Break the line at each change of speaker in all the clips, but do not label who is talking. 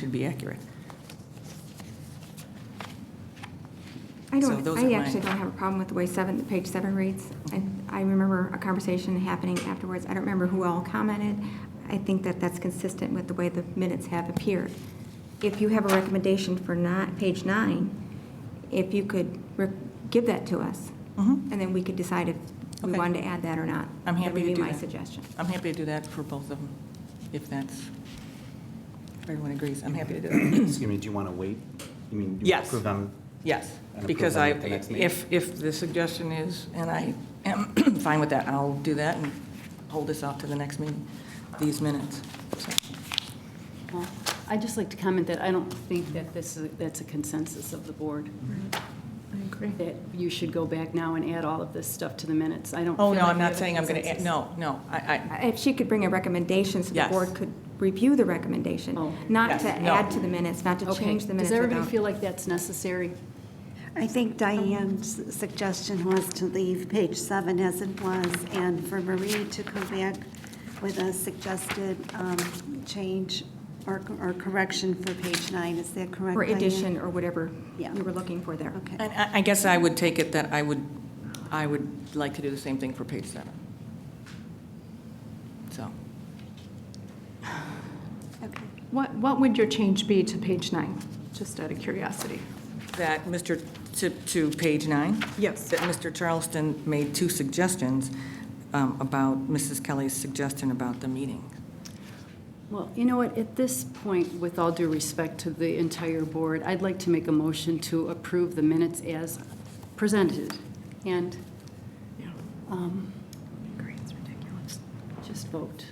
should be accurate.
I
So
don't,
those are
I
my-
actually don't have a problem with the way seven, page seven reads. I, I remember a conversation happening afterwards. I don't remember who all commented. I think that that's consistent with the way the minutes have appeared. If you have a recommendation for not, page nine, if you could re- give that to us,
Mhm.
and then we could decide if we
Okay.
wanted to add that or not.
I'm happy to do
Mm-hmm. That would be my
that.
suggestion.
I'm happy to do that for both of them, if that's, if everyone agrees, I'm happy to do that.
Excuse me, do you want to wait? You mean, you
Yes.
approve them?
Yes,
And approve
because
them
I,
at the next meeting.
if, if the suggestion is, and I am fine with that, I'll do that and hold this off to the next meeting, these minutes. So,
Well, I'd just like to comment that I don't think that this, is that's a consensus of the board,
I agree.
that you should go back now and add all of this stuff to the minutes. I don't.
Oh, no,
feel like
I'm
we have
not
a
saying I'm going to,
consensus.
no, no, I, I,
Uh, If she could bring a recommendation so the
Yes.
board could review the recommendation,
Oh.
not
Yes,
to
no.
add to the minutes, not to
Okay.
change the minutes.
Does everybody
without-
feel like that's necessary?
I think Diane's suggestion was to leave page seven as it was, and for Marie to come back with a suggested um, change or or correction for page nine. Is that correct,
Or
Diane?
addition, or whatever
oh, Yeah.
you were looking for there.
Okay.
and I I guess I would take it that I would, I would like to do the same thing for page seven. So,
Okay.
What, what would your change be to page nine, just out of curiosity?
that, Mr., to, to page nine?
Yes.
that Mr. Charleston made two suggestions um, about Mrs. Kelly's suggestion about the meeting.
Well, you know what, at this point, with all due respect to the entire board, I'd like to make a motion to approve the minutes as presented. And um, just vote.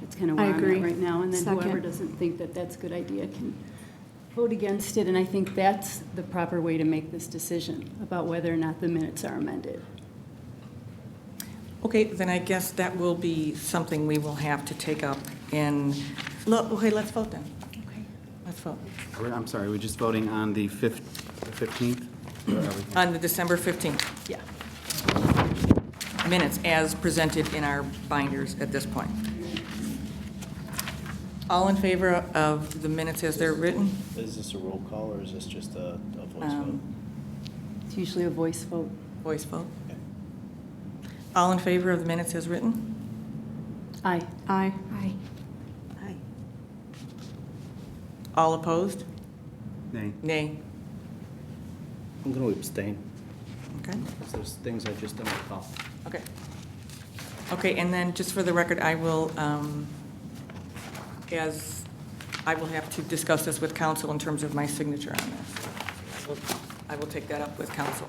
That's kind of
I
where I'm
agree.
at right now. And then whoever
Second.
doesn't think that that's a good idea can vote against it. And I think that's the proper way to make this decision about whether or not the minutes are amended.
Okay, then I guess that will be something we will have to take up in, look, okay, let's vote then. Let's vote.
We're- I'm sorry, we're just voting on the fif- the 15th? Where are we?
On the December 15th. Yeah. Minutes as presented in our binders at this point. All in favor of the minutes as they're written?
Is this a roll call or is this just a a voice vote?
Um,
It's usually a voice vote.
Voice vote.
Okay.
All in favor of the minutes as written?
Aye.
Aye.
Aye.
Aye.
All opposed?
Nay.
Nay.
I'm going to abstain
Okay.
because there's things I just don't recall.
Okay. Okay, and then just for the record, I will, um, as, I will have to discuss this with council in terms of my signature on this. I will take that up with council.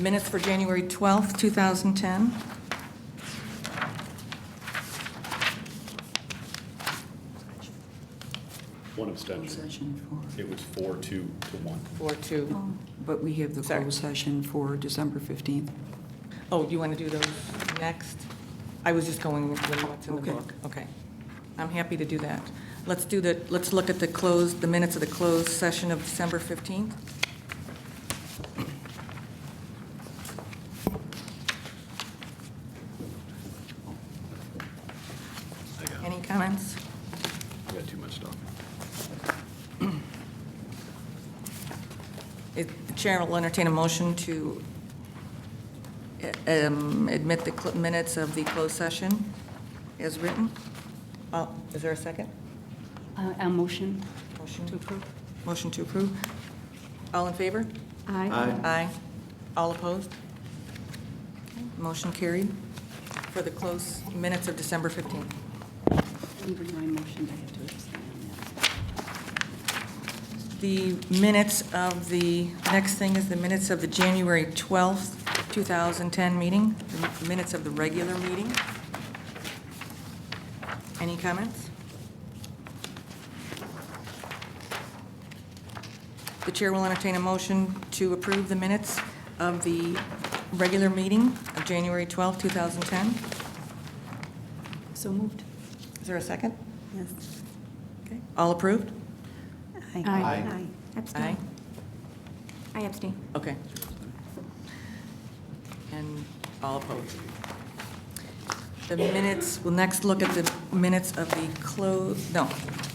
Minutes for January 12th, 2010.
One abstention. It was four, two to one.
Or two.
But we have the
Sorry.
closed session for December 15th.
Oh, you want to do those next? I was just going with what's in the
Okay.
book. Okay. I'm happy to do that. Let's do the, let's look at the closed, the minutes of the closed session of December 15th.
I got,
Any comments?
I got too much stuff.
It- The chair will entertain a motion to uh, um, admit the cl- minutes of the closed session as written. Uh, Is there a second?
Uh, A motion
Motion
to approve?
Motion to approve. All in favor?
Aye.
Aye. All opposed? Motion carried for the closed minutes of December 15th.
Even my motion, I have to abstain on that.
The minutes of the, next thing is the minutes of the January 12th, 2010 meeting, the minutes of the regular meeting. Any comments? The chair will entertain a motion to approve the minutes of the regular meeting of January 12th, 2010.
So moved.
Is there a second?
Yes.
Okay. All approved?
Aye.
Aye.
Abstain. I abstain.
Okay. And all opposed. The minutes, we'll next look at the minutes of the close, no,